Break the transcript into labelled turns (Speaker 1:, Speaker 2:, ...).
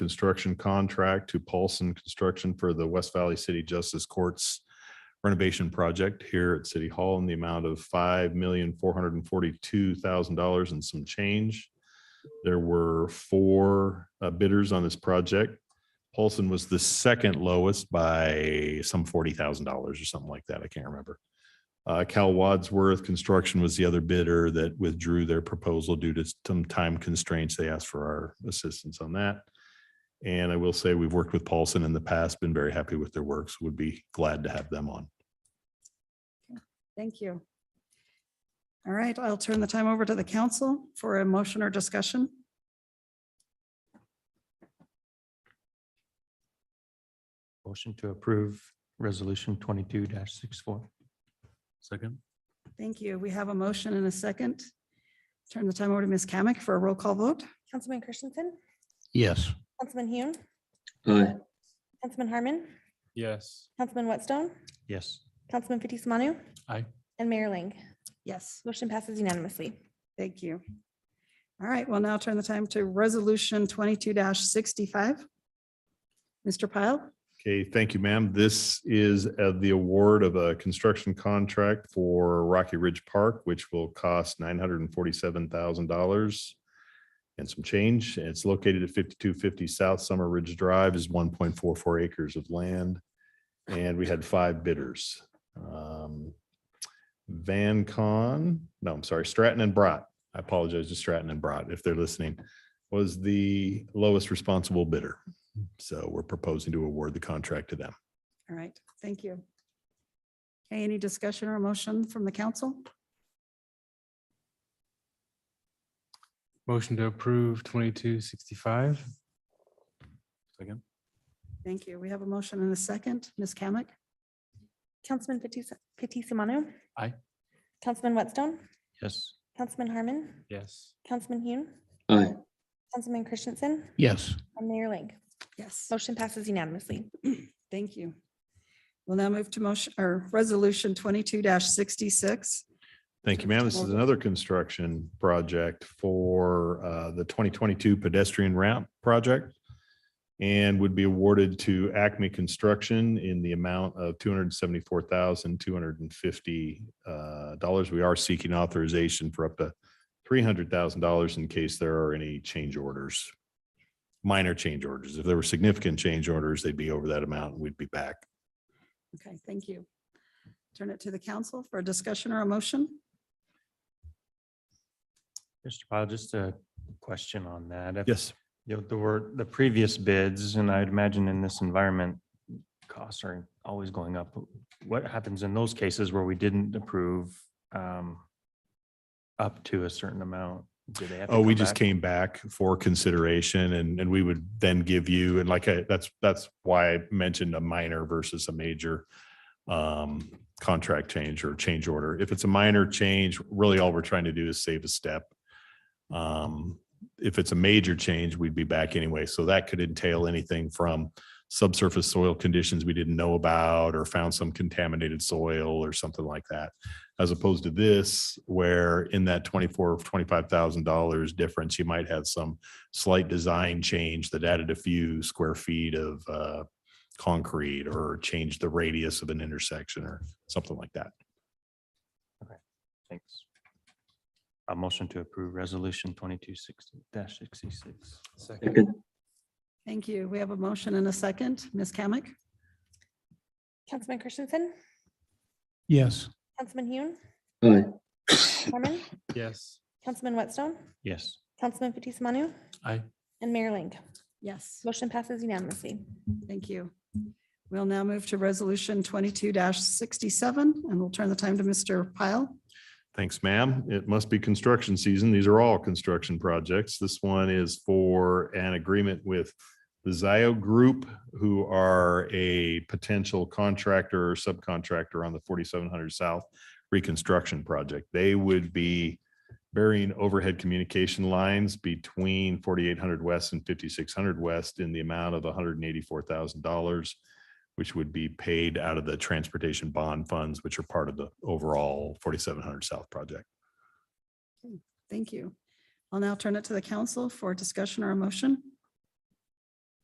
Speaker 1: construction contract to Paulson Construction for the West Valley City Justice Courts renovation project here at City Hall in the amount of five million, four hundred and forty-two thousand dollars and some change. There were four uh, bidders on this project. Paulson was the second lowest by some forty thousand dollars or something like that. I can't remember. Uh, Cal Wadsworth Construction was the other bidder that withdrew their proposal due to some time constraints. They asked for our assistance on that. And I will say we've worked with Paulson in the past, been very happy with their works, would be glad to have them on.
Speaker 2: Thank you. All right, I'll turn the time over to the council for a motion or discussion.
Speaker 3: Motion to approve resolution twenty-two 64
Speaker 4: Second?
Speaker 2: Thank you. We have a motion and a second. Turn the time over to Ms. Kamic for a roll call vote.
Speaker 5: Councilman Christensen,
Speaker 3: Yes.
Speaker 5: Councilman Hune,
Speaker 6: aye,
Speaker 5: Councilman Harmon,
Speaker 4: Yes.
Speaker 5: Councilman Whitstone,
Speaker 3: Yes.
Speaker 5: Councilman Fitzie Umanu.
Speaker 4: Aye.
Speaker 5: And Mayor Ling.
Speaker 2: Yes,
Speaker 5: Motion passes unanimously.
Speaker 2: thank you. All right, we'll now turn the time to Resolution twenty-two sixty-five. Mr. Pyle,
Speaker 1: Okay, thank you, ma'am. This is uh, the award of a construction contract for Rocky Ridge Park, which will cost nine hundred and forty-seven thousand dollars and some change. And It's located at fifty-two fifty South Summer Ridge Drive is one point four four acres of land. And we had five bidders. Um, Van Con, no, I'm sorry, Stratton and Brat. I apologize to Stratton and Brat if they're listening, was the lowest responsible bidder. So we're proposing to award the contract to them.
Speaker 2: all right, thank you. Okay, Any discussion or motion from the council?
Speaker 4: Motion to approve twenty-two sixty-five. Second?
Speaker 2: Thank you. We have a motion and a second. Ms. Kamic?
Speaker 5: Councilman Fitzie Fitzie Umanu.
Speaker 4: Aye.
Speaker 5: Councilman Whitstone,
Speaker 3: Yes.
Speaker 5: Councilman Harmon,
Speaker 4: Yes.
Speaker 5: Councilman Hune,
Speaker 6: aye,
Speaker 5: Councilman Christensen,
Speaker 3: Yes.
Speaker 5: and Mayor Ling.
Speaker 2: Yes.
Speaker 5: Motion passes unanimously.
Speaker 2: Thank you. We'll now move to motion, or Resolution twenty-two sixty-six.
Speaker 1: Thank you, ma'am. This is another construction project for uh, the 2022 pedestrian ramp project and would be awarded to Acme Construction in the amount of $274,250. uh, dollars. We are seeking authorization for up to $300,000 in case there are any change orders, minor change orders. If there were significant change orders, they'd be over that amount and we'd be back.
Speaker 2: Okay, thank you. Turn it to the council for a discussion or a motion.
Speaker 3: Mr. Pyle, just a question on that. If
Speaker 1: Yes.
Speaker 3: you know, There were the previous bids, and I'd imagine in this environment, costs are always going up. What happens in those cases where we didn't approve um, up to a certain amount? Do they have to
Speaker 1: Oh, we
Speaker 3: come
Speaker 1: just
Speaker 3: back?
Speaker 1: came back for consideration and, and we would then give you, and like, I- that's, that's why I mentioned a minor versus a major um, contract change or change order. If it's a minor change, really all we're trying to do is save a step. Um, If it's a major change, we'd be back anyway. So that could entail anything from subsurface soil conditions we didn't know about or found some contaminated soil or something like that as opposed to this, where in that twenty-four, twenty-five thousand dollars difference, you might have some slight design change that added a few square feet of uh, concrete or changed the radius of an intersection or something like that.
Speaker 3: Thanks. A motion to approve resolution twenty-two sixty sixty-six.
Speaker 6: second,
Speaker 2: Thank you. We have a motion and a second. Ms. Kamic?
Speaker 5: Councilman Christensen,
Speaker 3: Yes.
Speaker 5: Councilman Hune,
Speaker 6: aye,
Speaker 5: Harmon,
Speaker 4: Yes.
Speaker 5: Councilman Whitstone,
Speaker 3: Yes.
Speaker 5: Councilman Fitzie Umanu,
Speaker 4: Aye.
Speaker 5: and Mayor Ling.
Speaker 2: Yes.
Speaker 5: Motion passes unanimously.
Speaker 2: Thank you. We'll now move to Resolution twenty-two sixty-seven, and we'll turn the time to Mr. Pyle.
Speaker 1: Thanks, ma'am. It must be construction season. These are all construction projects. This one is for an agreement with the Zio Group, who are a potential contractor or subcontractor on the forty-seven hundred South reconstruction project. They would be burying overhead communication lines between forty-eight hundred West and fifty-six hundred West in the amount of hundred and eighty-four thousand dollars, which would be paid out of the transportation bond funds, which are part of the overall forty-seven hundred South project.
Speaker 2: Thank you. I'll now turn it to the council for discussion or a motion.